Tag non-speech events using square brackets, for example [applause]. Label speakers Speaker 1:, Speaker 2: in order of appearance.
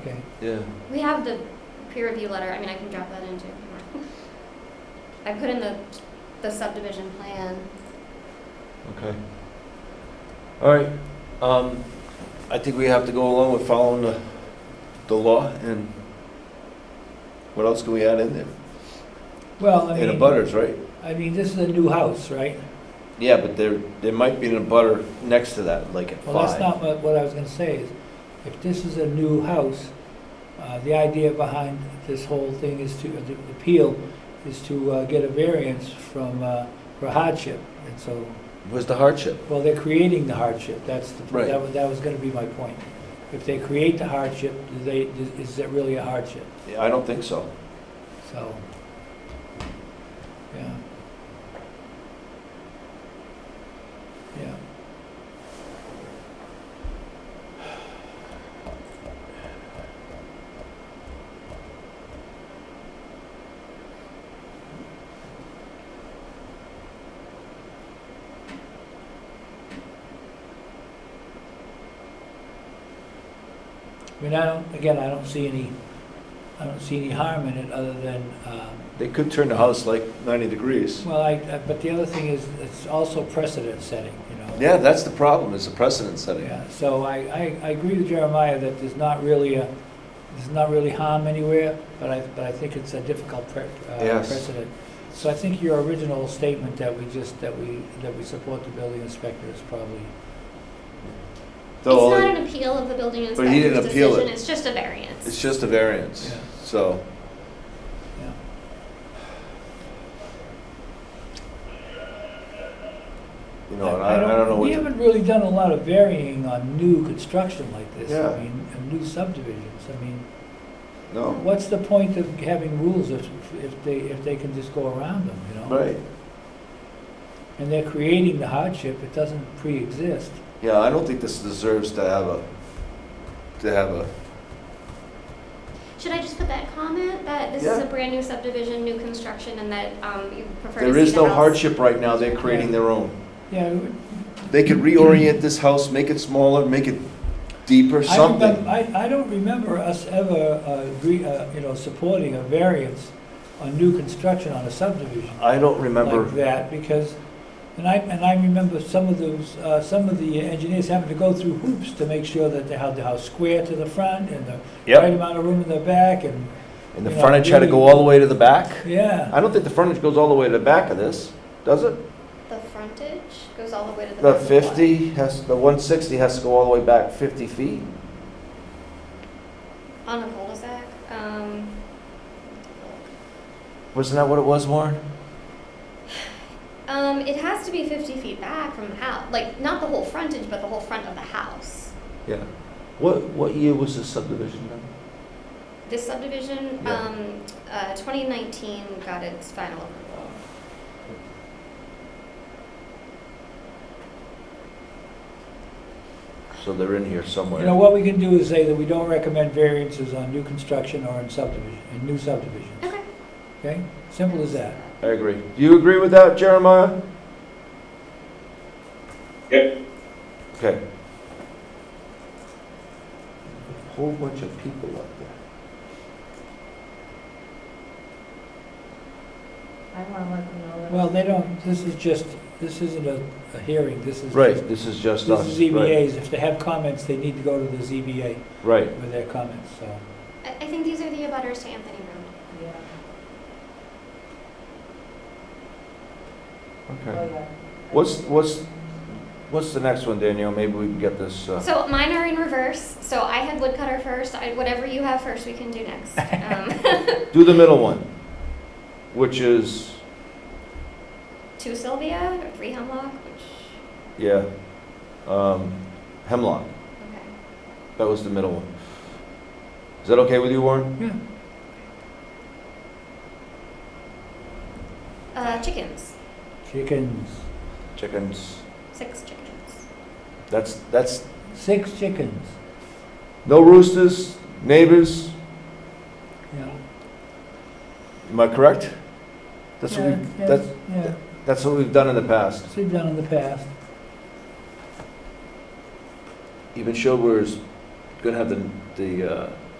Speaker 1: Okay.
Speaker 2: Yeah.
Speaker 3: We have the peer review letter, I mean, I can drop that into. I put in the, the subdivision plan.
Speaker 2: Okay. All right. Um, I think we have to go along with following the, the law and what else can we add in there?
Speaker 1: Well, I
Speaker 2: And
Speaker 1: mean,
Speaker 2: abutters, right?
Speaker 1: I mean, this is a new house, right?
Speaker 2: Yeah, but there, there might be an abutter next to that, like at
Speaker 1: Well, that's
Speaker 2: five.
Speaker 1: not what, what I was gonna say is, if this is a new house, uh, the idea behind this whole thing is to, the appeal is to, uh, get a variance from, uh, for hardship. And so,
Speaker 2: Where's the hardship?
Speaker 1: well, they're creating the hardship, that's the,
Speaker 2: Right.
Speaker 1: that was, that was gonna be my point. If they create the hardship, do they, is it really a hardship?
Speaker 2: Yeah, I don't think so.
Speaker 1: So, yeah. Yeah. I mean, I don't, again, I don't see any, I don't see any harm in it other than, um,
Speaker 2: They could turn the house like ninety degrees.
Speaker 1: well, I, I- but the other thing is, it's also precedent setting, you know?
Speaker 2: Yeah, that's the problem, It's the precedent setting.
Speaker 1: Yeah, so I, I, I agree with Jeremiah that there's not really a, there's not really harm anywhere, but I, but I think it's a difficult pre- uh,
Speaker 2: Yes.
Speaker 1: precedent. So I think your original statement that we just, that we, that we support the building inspector is probably,
Speaker 3: It's
Speaker 2: Though
Speaker 3: not an appeal of the building
Speaker 2: But he didn't
Speaker 3: inspector's
Speaker 2: appeal
Speaker 3: decision,
Speaker 2: it.
Speaker 3: it's just a variance.
Speaker 2: It's just a variance,
Speaker 1: Yeah.
Speaker 2: so.
Speaker 1: yeah.
Speaker 2: You know, and I, I don't know what.
Speaker 1: We haven't really done a lot of varying on new construction like this.
Speaker 2: Yeah.
Speaker 1: I mean, and new subdivisions, I mean.
Speaker 2: No,
Speaker 1: What's the point of having rules if, if they, if they can just go around them, you know?
Speaker 2: right.
Speaker 1: And they're creating the hardship, it doesn't pre-exist.
Speaker 2: Yeah, I don't think this deserves to have a, to have a,
Speaker 3: Should I just put that comment, that this is
Speaker 2: Yeah.
Speaker 3: a brand new subdivision, new construction, and that, um, you prefer to see the
Speaker 2: there is no
Speaker 3: house-
Speaker 2: hardship right now, they're creating their own.
Speaker 1: Yeah. it-
Speaker 2: They could reorient this house, make it smaller, make it deeper,
Speaker 1: I remem-
Speaker 2: something.
Speaker 1: I, I don't remember us ever, uh, agree, uh, you know, supporting a variance on new construction on a subdivision.
Speaker 2: I don't
Speaker 1: like
Speaker 2: remember,
Speaker 1: that, because, and I, and I remember some of those, uh, some of the engineers having to go through hoops to make sure that they had the house square to the front and the right
Speaker 2: yep,
Speaker 1: amount of room in the back and,
Speaker 2: and the
Speaker 1: you know,
Speaker 2: frontage had to go
Speaker 1: really-
Speaker 2: all the way to the back?
Speaker 1: yeah.
Speaker 2: I don't think the frontage goes all the way to the back of this, does it?
Speaker 3: The frontage goes all the way to the.
Speaker 2: The
Speaker 3: back of lot.
Speaker 2: fifty has, the one sixty has to go all the way back fifty feet?
Speaker 3: On a cul-de-sac, um,
Speaker 2: Wasn't that what it was, Warren?
Speaker 3: um, it has to be fifty feet back from the house, like, not the whole frontage, but the whole front of the house.
Speaker 2: Yeah. What, what year was this subdivision done?
Speaker 3: This subdivision,
Speaker 2: Yeah.
Speaker 3: um, uh, twenty nineteen got its final approval.
Speaker 2: So they're in here somewhere.
Speaker 1: You know, what we can do is say that we don't recommend variances on new construction or in subdivision, in new subdivisions,
Speaker 3: Okay.
Speaker 1: okay? Simple as that.
Speaker 2: I agree. Do you agree with that, Jeremiah?
Speaker 4: Yep.
Speaker 2: Okay. Whole bunch of people up there.
Speaker 5: I want to let them know that.
Speaker 1: Well, they don't, this is just, this isn't a, a hearing, this is
Speaker 2: Right,
Speaker 1: just-
Speaker 2: this is just
Speaker 1: This
Speaker 2: us.
Speaker 1: is E
Speaker 2: right,
Speaker 1: ZBAs, if they have comments, they need to go to the ZBA
Speaker 2: Right,
Speaker 1: with their comments, so.
Speaker 3: I, I think these are the abutters to Anthony Road.
Speaker 5: Yeah.
Speaker 2: okay.
Speaker 5: Oh, yeah.
Speaker 2: What's, what's, what's the next one, Danielle? Maybe we can get this, uh,
Speaker 3: So mine are in reverse, so I had woodcutter first, I, whatever you have first, we can do
Speaker 1: [laughs]
Speaker 3: next. Um,
Speaker 2: do the middle one, which is,
Speaker 3: two Sylvia, or three Hemlock, which,
Speaker 2: yeah, um, Hemlock.
Speaker 3: okay.
Speaker 2: That was the middle one. Is that okay with you, Warren?
Speaker 1: Yeah.
Speaker 3: Uh, chickens,
Speaker 1: Chickens,
Speaker 2: Chickens.
Speaker 3: six chickens.
Speaker 2: That's, that's
Speaker 1: six chickens,
Speaker 2: No roosters, neighbors,
Speaker 1: yeah.
Speaker 2: am I correct? That's what
Speaker 1: Yeah,
Speaker 2: we've,
Speaker 1: yeah,
Speaker 2: that's,
Speaker 1: Yeah,
Speaker 2: that's what we've done in the past.
Speaker 1: it's been done in the past,
Speaker 2: Even Schober's gonna have the, the, uh,